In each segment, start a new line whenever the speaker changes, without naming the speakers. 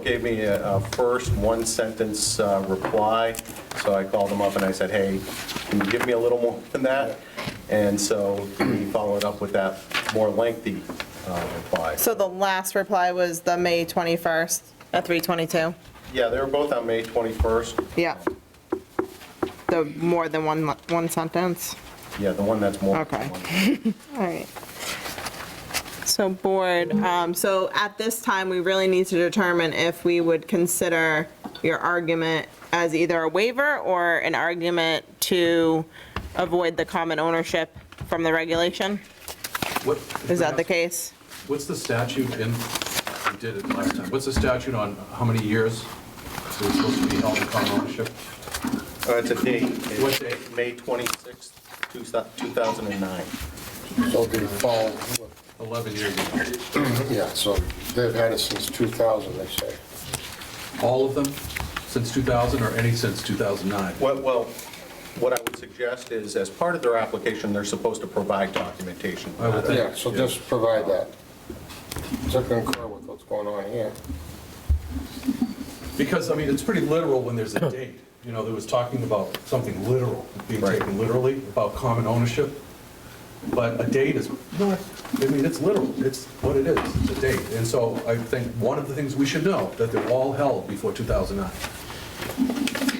gave me a a first one-sentence uh, reply, so I called him up and I said, hey, can you give me a little more than that? And so he followed up with that more lengthy uh, reply.
So the last reply was the May 21st at 3:22?
Yeah, they were both on May 21st.
Yeah. The more than one, mo- one sentence?
Yeah, the one that's more.
Okay. All right. So board, um, so at this time, we really need to determine if we would consider your argument as either a waiver or an argument to avoid the common ownership from the regulation?
What-
Is that the case?
What's the statute in, we did it last time, what's the statute on how many years it's supposed to be held in common ownership?
Uh, It's a date.
What date?
May 26th, 2009.
So they fall,
11 years ago.
yeah, so they've had it since 2000, they say.
All of them since 2000 or any since 2009?
Well- Well, what I would suggest is, as part of their application, they're supposed to provide documentation.
I would think.
Yeah, so just provide that. To concur with what's going on here.
Because, I mean, it's pretty literal when there's a date. You know, there was talking about something literal, being
Right.
taken literally, about common ownership. But a date is not, I mean, it's literal, it's what it is, it's a date. And so I think one of the things we should know, that they're all held before 2009.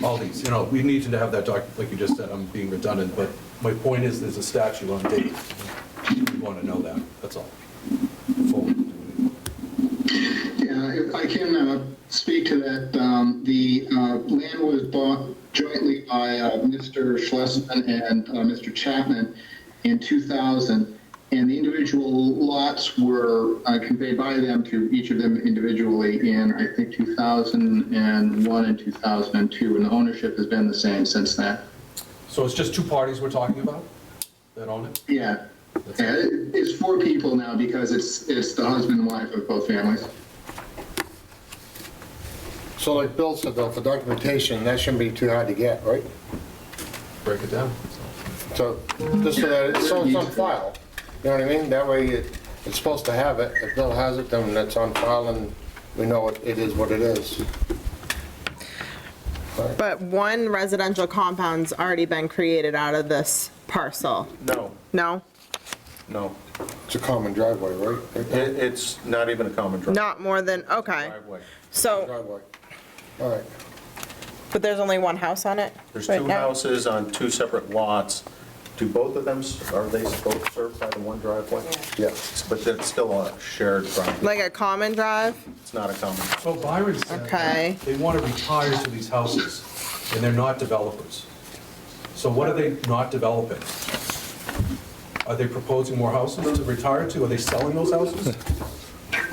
All these, you know, we need to have that doc, like you just said, I'm being redundant, but my point is, there's a statute on dates. We want to know that, that's all. Before we do anything.
Yeah, if I can uh, speak to that, um, the uh, land was bought jointly by uh, Mr. Schlesman and uh, Mr. Chapman in 2000, and the individual lots were uh, conveyed by them to each of them individually in, I think, 2001 and 2002, and the ownership has been the same since then.
So it's just two parties we're talking about that own it?
Yeah, yeah, it- it's four people now because it's, it's the husband and wife of both families.
So like Bill said, though, for documentation, that shouldn't be too hard to get, right?
Break it down.
So, just so that, it's- so it's on file, you know what I mean? That way, it- it's supposed to have it. If Bill has it, then it's on file, and we know it it is what it is.
But one residential compound's already been created out of this parcel,
No,
no?
no.
It's a common driveway, right?
It- It's not even a common driveway.
Not more than, okay.
Driveway.
So,
Driveway. All right.
but there's only one house on it?
There's
right
two
now?
houses on two separate lots. Do both of them, are they both served by the one driveway?
Yeah.
But that's still a shared driveway.
Like a common drive?
It's not a common.
So Oh, Byron said
Okay.
that they want to retire to these houses, and they're not developers. So what are they not developing? Are they proposing more houses to retire to? Are they selling those houses?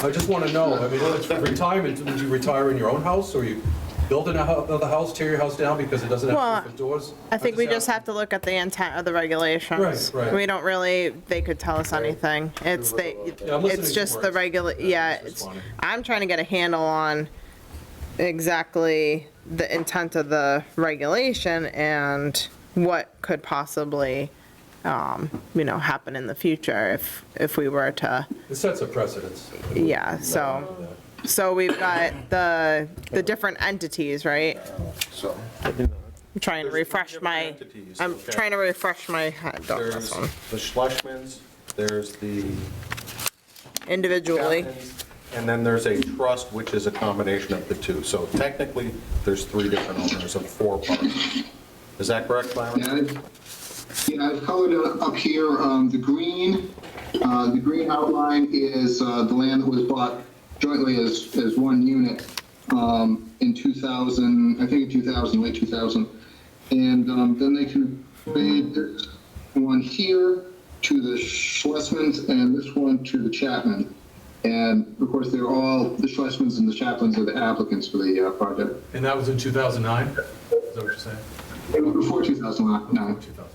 I just want to know, I mean, if it's retirement, would you retire in your own house, or you build in a hou- another house, tear your house down because it doesn't
Well,
have different doors?
I think we just have
asked-
to look at the intent of the regulations.
Right, right.
We don't really, they could tell us anything. It's the,
Yeah, I'm listening
it's
to
just the
words.
regula,
Yeah,
yeah,
it's
it's,
responding.
I'm trying to get a handle on exactly the intent of the regulation and what could possibly, um, you know, happen in the future if, if we were to,
It sets a precedence.
yeah, so. So we've got the, the different entities, right?
So,
I'm trying
There's
to
three
refresh
different
my,
entities,
I'm
okay.
trying to Oh, refresh my head on
There's
this one
the Schlesmans, there's the
individually.
Chapmans, and then there's a trust, which is a combination of the two. So technically, there's three different owners of four parts. Is that correct, Byron?
Yeah, I've- yeah, I've colored it up here, um, the green, uh, the green outline is, uh, the land that was bought jointly as, as one unit, um, in two thousand, I think in two thousand, late two thousand. And, um, then they conveyed this one here to the Schlesmans and this one to the Chapman. And of course, they're all, the Schlesmans and the Chapmans are the applicants for the, uh, project.
And that was in 2009? Is that what you're saying?
It was before two thousand nine.
2000.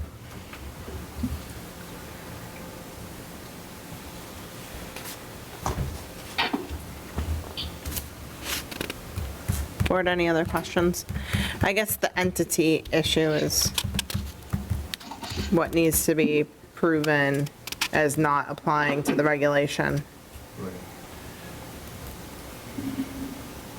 Board, any other questions? I guess the entity issue is what needs to be proven as not applying to the regulation.
Right.